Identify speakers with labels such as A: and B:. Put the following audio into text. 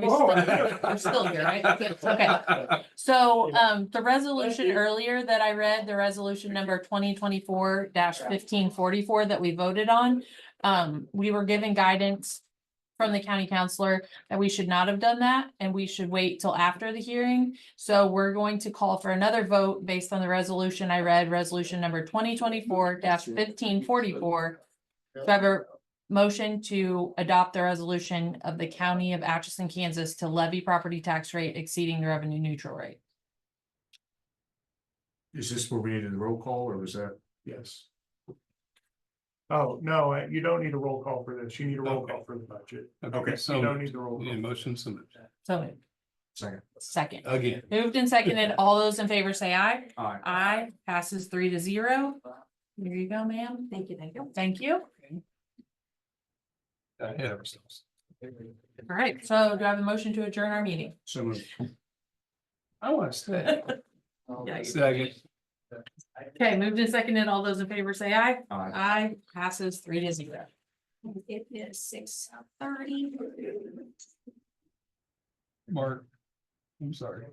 A: We're still here. We're still here, right? Okay. So um, the resolution earlier that I read, the resolution number twenty twenty-four fifteen forty-four that we voted on. Um, we were given guidance from the county counselor that we should not have done that and we should wait till after the hearing. So we're going to call for another vote based on the resolution I read, resolution number twenty twenty-four fifteen forty-four. Do I have a motion to adopt the resolution of the county of Atchison, Kansas to levy property tax rate exceeding the revenue neutral rate?
B: Is this where we needed a roll call or was that? Yes.
C: Oh, no, uh, you don't need a roll call for this. You need a roll call for the budget.
B: Okay,
C: You
D: So,
C: don't need the roll.
D: yeah,
C: call.
D: motion so moved.
A: So moved.
B: Second.
A: second,
D: Again,
A: moved and seconded, all those in favor say aye.
B: Aye.
A: Aye passes three to zero. There you go, ma'am. Thank you, thank you. Thank you.
D: ahead of ourselves.
A: All right, so do I have a motion to adjourn our meeting?
B: So moved.
D: I want to stay. Second.
A: Okay, moved and seconded, all those in favor say aye.
B: Aye.
A: Aye passes three to zero.
E: It is six thirty.
D: Mark, I'm sorry.